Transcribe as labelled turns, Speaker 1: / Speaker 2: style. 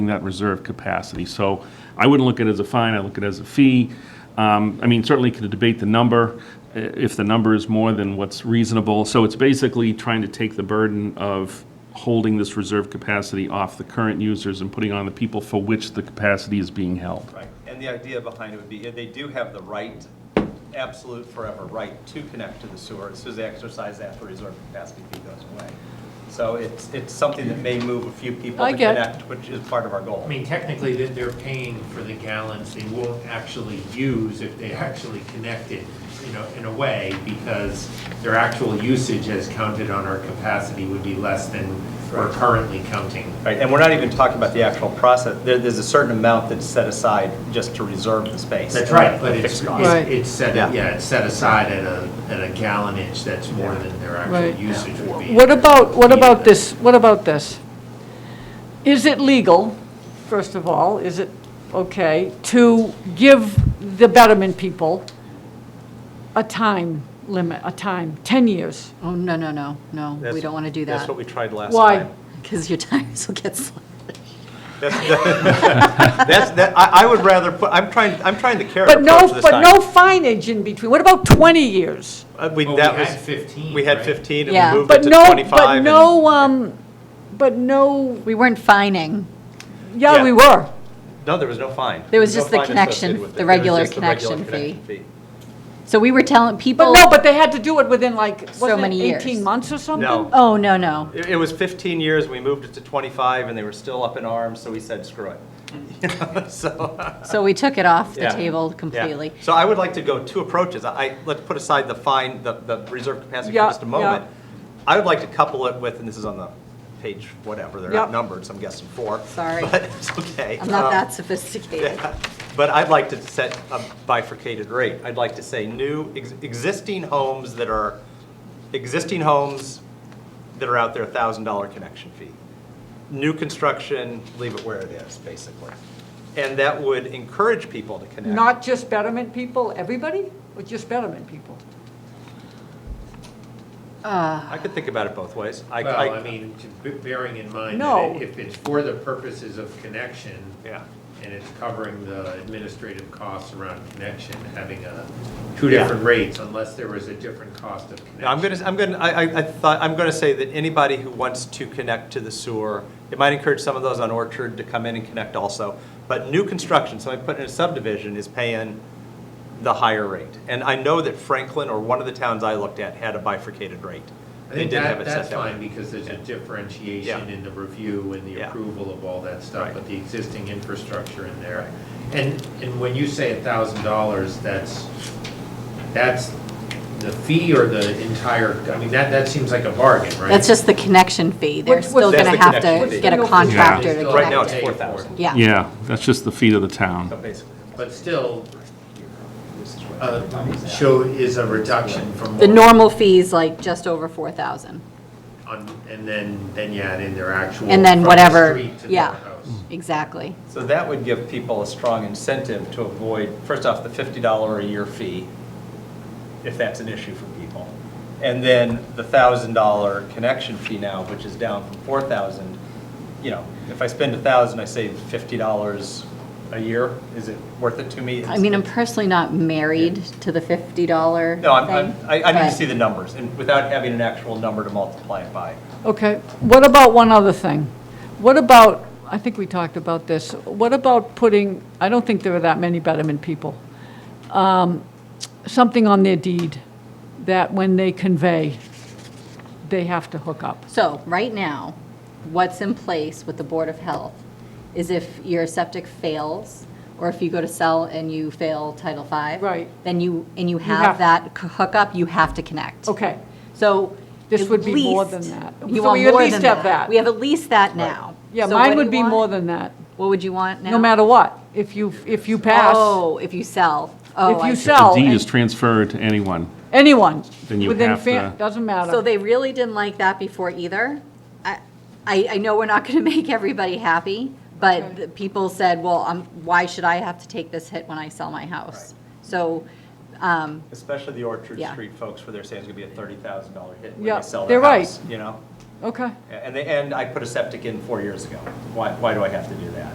Speaker 1: that reserve capacity. So I wouldn't look at it as a fine, I look at it as a fee. Um, I mean, certainly could debate the number, i- if the number is more than what's reasonable. So it's basically trying to take the burden of holding this reserve capacity off the current users and putting on the people for which the capacity is being held.
Speaker 2: Right, and the idea behind it would be, uh, they do have the right, absolute forever right, to connect to the sewer, as soon as they exercise that, the reserve capacity fee goes away. So it's, it's something that may move a few people
Speaker 3: I
Speaker 2: to
Speaker 3: get-
Speaker 2: connect, which is part of our goal.
Speaker 4: I mean, technically, that they're paying for the gallons they won't actually use if they actually connected, you know, in a way, because their actual usage as counted on our capacity would be less than we're currently counting.
Speaker 2: Right, and we're not even talking about the actual process, there, there's a certain amount that's set aside just to reserve the space.
Speaker 4: That's right, but it's,
Speaker 2: Fixed
Speaker 4: it's
Speaker 2: cost.
Speaker 3: Right.
Speaker 4: it's set,
Speaker 2: Yeah.
Speaker 4: yeah, it's set aside at a, at a gallonage that's more than their
Speaker 3: Right.
Speaker 4: actual usage would be.
Speaker 3: What about, what
Speaker 4: Yeah.
Speaker 3: about this, what about this? Is it legal, first of all, is it okay, to give the betterment people a time limit, a time, 10 years?
Speaker 5: Oh, no, no, no, no, we
Speaker 2: That's-
Speaker 5: don't want to do
Speaker 2: That's
Speaker 5: that,
Speaker 2: what we tried last
Speaker 3: Why?
Speaker 2: time.
Speaker 5: because your tires will get slashed.
Speaker 2: That's, that, I, I would rather put, I'm trying, I'm trying to carrot
Speaker 3: But no,
Speaker 2: approach this
Speaker 3: but
Speaker 2: time.
Speaker 3: no fineage in between, what about 20 years?
Speaker 2: Uh, We,
Speaker 4: Well, we
Speaker 2: that
Speaker 4: had
Speaker 2: was.
Speaker 4: 15,
Speaker 2: We had
Speaker 4: right?
Speaker 2: 15
Speaker 5: Yeah.
Speaker 2: and we moved it
Speaker 3: But
Speaker 2: to
Speaker 3: no,
Speaker 2: 25.
Speaker 3: but
Speaker 2: and-
Speaker 3: no, um, but no,
Speaker 5: We weren't fining,
Speaker 3: yeah,
Speaker 2: Yeah.
Speaker 3: we were.
Speaker 2: No, there was no fine.
Speaker 5: There was
Speaker 2: no
Speaker 5: just the
Speaker 2: fine
Speaker 5: connection,
Speaker 2: associated with it.
Speaker 5: the
Speaker 2: It was
Speaker 5: regular
Speaker 2: just the regular
Speaker 5: connection fee.
Speaker 2: connection fee.
Speaker 5: so we were telling
Speaker 3: But
Speaker 5: people.
Speaker 3: no, but they had to do it within like,
Speaker 5: So
Speaker 3: wasn't
Speaker 5: many
Speaker 3: it
Speaker 5: years.
Speaker 3: 18 months or something?
Speaker 2: No,
Speaker 5: Oh, no, no,
Speaker 2: it, it was 15 years, we moved it to 25, and they were still up in arms, so we said, screw it. You know, So,
Speaker 5: so we took it off the
Speaker 2: Yeah.
Speaker 5: table
Speaker 2: yeah.
Speaker 5: completely.
Speaker 2: So I would like to go two approaches. I, I- let's put aside the fine, the, the reserve capacity for
Speaker 3: Yeah,
Speaker 2: just a moment. I would like to couple it with, and this is on the page, whatever, they're
Speaker 3: Yep.
Speaker 2: outnumbered, so I'm guessing four.
Speaker 5: Sorry.
Speaker 2: But it's okay.
Speaker 5: I'm not
Speaker 2: Um,
Speaker 5: that sophisticated.
Speaker 2: Yeah, But I'd like to set a bifurcated rate. I'd like to say new, ex- existing homes that are, existing homes that are out there, $1,000 connection fee. New construction, leave it where it is, basically. And that would encourage people to connect.
Speaker 3: Not just betterment people, everybody, or just betterment people?
Speaker 2: I could think about it both ways. I-
Speaker 4: Well,
Speaker 2: I-
Speaker 4: I mean, to b- bearing in mind
Speaker 3: No.
Speaker 4: that if it's for the purposes of connection,
Speaker 2: Yeah.
Speaker 4: and it's covering the administrative costs around connection, having a, two
Speaker 2: Yeah.
Speaker 4: different rates unless there was a different cost of connection.
Speaker 2: No, I'm gonna, I'm gonna, I, I I thought, I'm gonna say that anybody who wants to connect to the sewer, it might encourage some of those on Orchard to come in and connect also, but new construction, somebody put in a subdivision is paying the higher rate. And I know that Franklin, or one of the towns I looked at, had a bifurcated rate.
Speaker 4: I
Speaker 2: They
Speaker 4: think
Speaker 2: did have
Speaker 4: that,
Speaker 2: it set
Speaker 4: that's
Speaker 2: that way.
Speaker 4: fine because there's a differentiation
Speaker 2: Yeah.
Speaker 4: in the review and the
Speaker 2: Yeah.
Speaker 4: approval of all that stuff,
Speaker 2: Right.
Speaker 4: but the existing infrastructure in there. And, and when you say a thousand dollars, that's, that's the fee or the entire, I mean, that, that seems like a bargain, right?
Speaker 5: That's just the connection fee, they're
Speaker 3: What's-
Speaker 5: still
Speaker 2: what's-
Speaker 5: going
Speaker 2: That's
Speaker 5: to
Speaker 2: the
Speaker 5: have
Speaker 2: connection
Speaker 5: to
Speaker 2: fee.
Speaker 5: get a
Speaker 3: Yeah.
Speaker 5: contractor to
Speaker 4: Still
Speaker 2: Right now,
Speaker 5: connect
Speaker 2: it's
Speaker 5: it.
Speaker 4: pay for it.
Speaker 2: 4,000.
Speaker 5: Yeah,
Speaker 1: Yeah, that's just the fee of the
Speaker 2: So
Speaker 1: town.
Speaker 2: Oh, basically,
Speaker 4: But still, uh, show is a reduction from.
Speaker 5: the
Speaker 4: what-
Speaker 5: normal fee's like just over 4,000,
Speaker 4: on- And then, then you add in their actual.
Speaker 5: And then
Speaker 4: from the
Speaker 5: whatever-
Speaker 4: street to their
Speaker 5: yeah.
Speaker 4: house.
Speaker 5: exactly.
Speaker 2: So that would give people a strong incentive to avoid, first off, the $50 a year fee, if that's an issue for people. And then the $1,000 connection fee now, which is down from 4,000. You know, if I spend 1,000, I save $50 a year. Is it worth it to me?
Speaker 5: I mean, I'm personally not married to the $50 thing.
Speaker 2: No, I'm- I'm, I, I need to
Speaker 5: but-
Speaker 2: see the numbers and without having an actual number to multiply it by.
Speaker 3: Okay, what about one other thing? What about, I think we talked about this, what about putting, I don't think there are that many betterment people, um, something on their deed that when they convey, they have to hook up?
Speaker 5: So, right now, what's in place with the Board of Health is if your septic fails, or if you go to sell and you fail Title V.
Speaker 3: Right.
Speaker 5: Then you, and you
Speaker 3: have-
Speaker 5: have that c- hookup, you have to connect.
Speaker 3: Okay,
Speaker 5: So.
Speaker 3: This
Speaker 5: at
Speaker 3: would be more than
Speaker 5: least-
Speaker 3: that.
Speaker 5: You
Speaker 3: So
Speaker 5: want
Speaker 3: we at
Speaker 5: more
Speaker 3: least
Speaker 5: than
Speaker 3: have that.
Speaker 5: that. We have at least that now.
Speaker 3: yeah,
Speaker 5: So what
Speaker 3: mine
Speaker 5: do
Speaker 3: would
Speaker 5: you
Speaker 3: be more
Speaker 5: want?
Speaker 3: than that,
Speaker 5: What would you want now?
Speaker 3: no matter what, if you, if you pass,
Speaker 5: Oh, if you sell. Oh,
Speaker 3: if
Speaker 5: I
Speaker 3: you
Speaker 5: see.
Speaker 1: The
Speaker 3: sell,
Speaker 1: deed
Speaker 3: and-
Speaker 1: is transferred to anyone.
Speaker 3: anyone,
Speaker 1: Then you
Speaker 3: within,
Speaker 1: have
Speaker 3: fa-
Speaker 1: to-
Speaker 3: doesn't matter.
Speaker 5: So they really didn't like that before either. I, I I know we're not going to make everybody happy, but the people said, well, um, why should I have to take this hit when I sell my house? So, um,
Speaker 2: Especially the Orchard
Speaker 5: Yeah.
Speaker 2: Street folks where they're saying it's gonna be a $30,000 hit when
Speaker 3: Yeah,
Speaker 2: they sell their
Speaker 3: they're right.
Speaker 2: house, you know?
Speaker 3: Okay.
Speaker 2: And, they- and I put a septic in four years ago. Why, why do I have to do that?